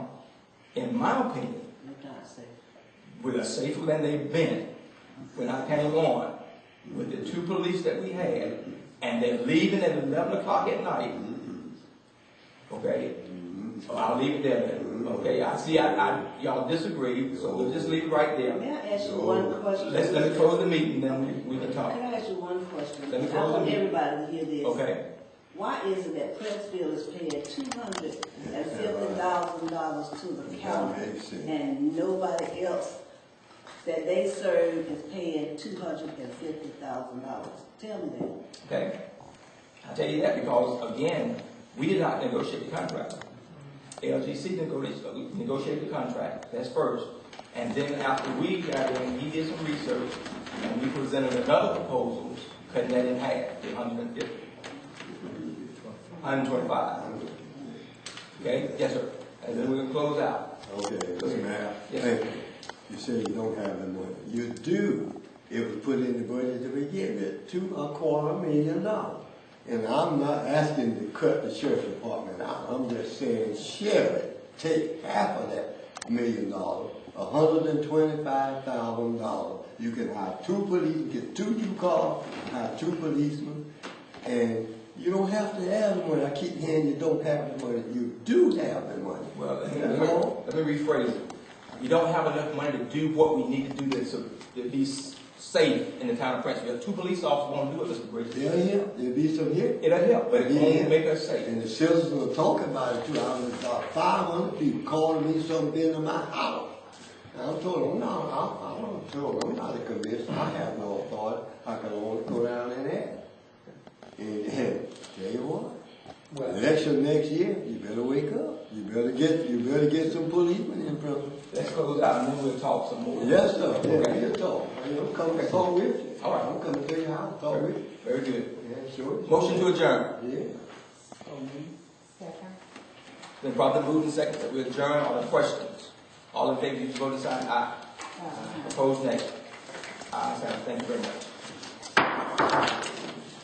in my opinion, If not safe. were safer than they've been when I came on with the two police that we had, and they're leaving at eleven o'clock at night. Okay? So I'll leave it there then. Okay, I see, I, I, y'all disagree, so we'll just leave it right there. May I ask you one question? Let's, let me close the meeting, then we, we can Can talk. I ask you one question? Let me I close want it. everybody to hear this. Okay? Why is it that Princeville is paying two hundred and fifty thousand dollars to the county and nobody else that they serve is paying two hundred and fifty thousand dollars? Tell me that. Okay? I tell you that because, again, we did not negotiate the contract. LGC negotiated, negotiated the contract, that's first. And then after we got in, he did some research, and we presented another proposal, cutting that in half, to hundred and fifty. Hundred and twenty-five. Okay, yes, sir. And then we're gonna close out. Okay, Mr. Mayor, Yes. thank you. You say you don't have the money. You do. It was put in the budget to begin with, two, a quarter million dollars. And I'm not asking to cut the sheriff's department out. I'm just saying, sheriff, take half of that million dollars, a hundred and twenty-five thousand dollars. You can hire two police, get two new cars, hire two policemen, and you don't have to have the money. I keep hearing you don't have the money. You do have the money. Well, let me, You know? let me rephrase it. We don't have enough money to do what we need to do to, su- to be s- safe in the town of Prince. We have two police officers won't do it, Mr. Bridges. They'll help. There'll be some help. It'll help, but it Yeah. won't make us safe. And the citizens will talk about it too. I was about five hundred people calling me something in my house. And I told them, no, I, I don't tell them, I'm not a commissioner. I have no authority. I can only go down and ask. And, and tell you what, election next year, you better wake up. You better get, you better get some policemen in prison. Let's close out and then we'll talk some more. Yes, sir. Yeah, Okay. we'll talk. I'm coming to talk with you. All right. I'm coming to tell you how to talk with you. Very good. Yeah, sure. Motion to adjourn. Yeah. Second. Then properly moved and second that we adjourn. All the questions? All in favor, use your voting sign. Aye. Opposed, nay. Ayes have it. Thank you very much.